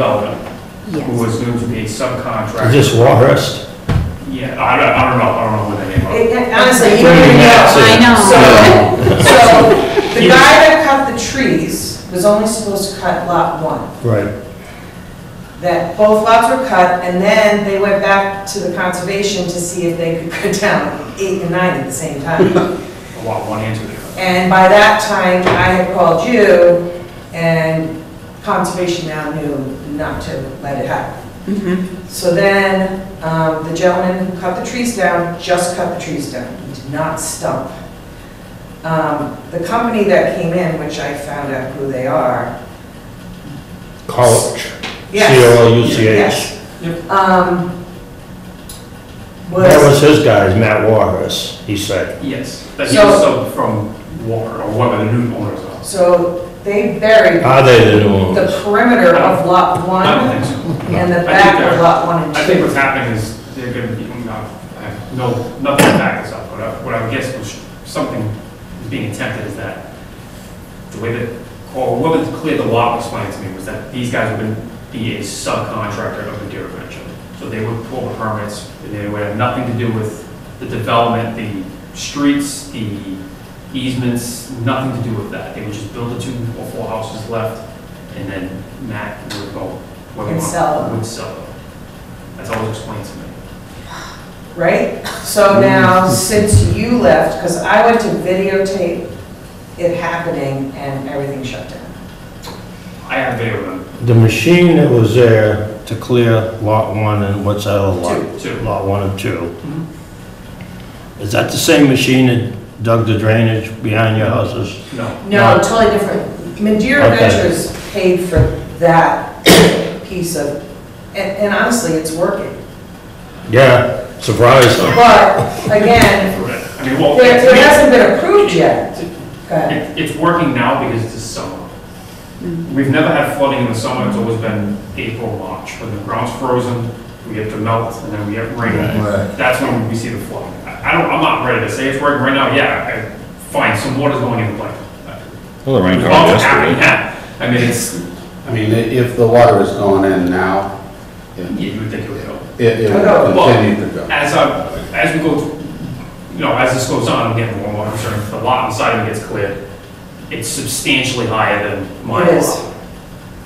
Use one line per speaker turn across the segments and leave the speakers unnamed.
Development, who
Yes.
was known to be a subcontractor.
Is this Warhurst?
Yeah, I don't, I don't know, I don't know what the name of it.
Honestly, you don't
Pretty
even know.
nuts, eh?
I know.
So, so the guy that cut the trees was only supposed to cut lot one.
Right,
That both lots were cut, and then they went back to the conservation to see if they could cut down eight and nine at the same time.
A lot, one answer there.
And by that time, I had called you, and conservation now knew not to let it happen.
Mhm.
So then, um, the gentleman who cut the trees down, just cut the trees down, he did not stump. Um, The company that came in, which I found out who they are,
College. E
yes,
C-O-L-U-C-H.
yes.
Yep.
um,
That was
Was,
his guy's, Matt Warhurst, he said.
Yes, but he was sub from Warner, or one of the new owners of.
so they buried
Are they the new owners?
the perimeter of lot
I don't
one
think so.
and the
think
back of
they're-
lot one and
I
two.
think what's happening is they're gonna be, I'm not- I have no, nothing to back this up, but I- what I would guess was something is being attempted is that the way that, or what was clear the law explained to me was that these guys would be a subcontractor of the Deer Convention. So they would pull the permits, and they would have nothing to do with the development, the streets, the easements, nothing to do with that. They would just build the two or four houses left, and then Matt would go, what we
And
want,
sell them.
would sell them. That's always explained to me.
right? So now,
Mm.
since you left, because I went to videotape it happening and everything shut down.
I have video of them,
The machine that was there to clear lot one and what's that other lot?
too.
Lot one and two. Is that the same machine that dug the drainage behind your houses?
No,
No, totally different. Madeira
Okay.
Ventures paid for that piece of, and and honestly, it's working.
Yeah, surprised them.
But again,
correct. I mean, well.
there there hasn't been approved yet. Go ahead.
It- It's working now because it's the summer. We've never had flooding in the summer, it's always been April, March, when the ground's frozen, we get to melt, and then we get rain. That's when we see the flooding. I I don't, I'm not ready to say it's working right now, yeah, I- fine, some water's going in the pipe.
Well, the rain
It's
caught
all happening
yesterday.
now. I mean, it's,
I mean, i- if the water is going in now, it,
you would think it would help.
it
Well-
will continue to go.
As I, as we go, you know, as this goes on, I'm getting more and more concerned, the lot inside of it gets cleared, it's substantially higher than my
It is.
lot.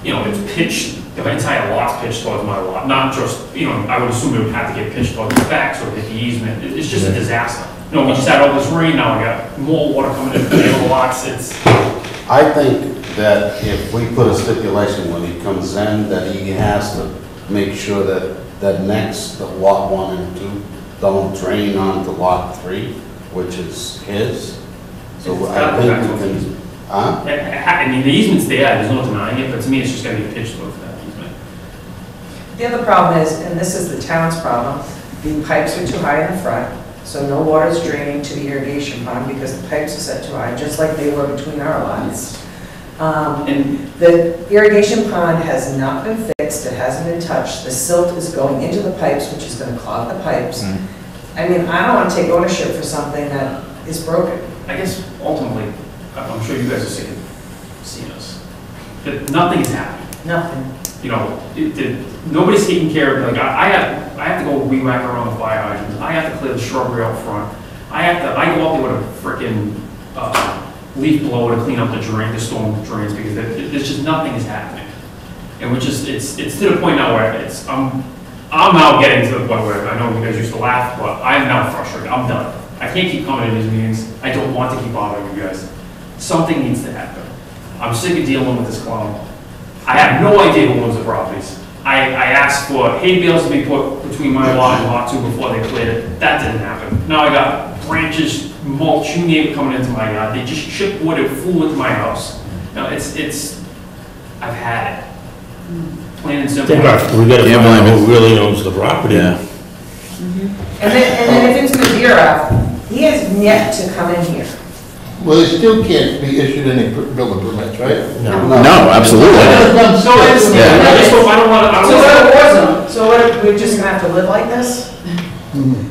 You know, it's pitched, the entire lot's pitched towards my lot, not just, you know, I would assume it would have to get pitched towards the back, so that the easement, it- it's just a disaster. You know, we just had all this rain, now we got more water coming in from the other lots, it's,
I think that if we put a stipulation when he comes in, that he has to make sure that, that next, the lot one and two don't drain onto lot three, which is his. So I think we can, huh?
I- I I mean, the easement's there, there's no denying it, but to me, it's just gonna be pitched towards that easement.
The other problem is, and this is the town's problem, the pipes are too high in the front, so no water's draining to the irrigation pond because the pipes are set too high, just like they were between our lines. Um,
And,
The irrigation pond has not been fixed, it hasn't been touched, the silt is going into the pipes, which is gonna clog the pipes.
Mm.
I mean, I don't wanna take ownership for something that is broken.
I guess ultimately, I- I'm sure you guys have seen, seen us, that nothing is happening.
Nothing.
You know, it, it, nobody's taking care of, like, I, I have, I have to go weed whack around the fire hydrants, I have to clear the shrubbery out front, I have to, I go out there with a frickin', uh, leaf blower to clean up the drain, the storm drains, because there, there's just, nothing is happening. And we're just, it's, it's to the point now where it's, I'm, I'm now getting to the point where, I know you guys used to laugh, but I'm now frustrated, I'm done. I can't keep coming to these meetings, I don't want to keep bothering you guys. Something needs to happen. I'm sick of dealing with this clown. I have no idea who owns the properties. I, I asked for hay bales to be put between my lot and lot two before they cleared it, that didn't happen. Now I got branches, mulch, you name it coming into my yard, they just shipped wood, it flew into my house. Now, it's, it's, I've had it. Plain and
I
simple.
think our- we gotta
Yeah,
find out
but-
who really owns the property.
Yeah.
And then, and then if it's Madeira, he has yet to come in here.
Well, they still can't be issued any per- building permits, right?
No.
No, absolutely.
So it's,
Yeah.
I just don't, I don't wanna, I
So uh,
don't
what
wanna.
if it wasn't? So what, if we're just gonna have to live like this?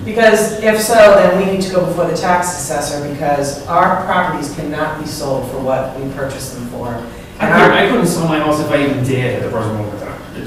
Because if so, then we need to go before the tax assessor because our properties cannot be sold for what we purchased them for.
I couldn't, I couldn't sell my house if I even dared at the present moment in time.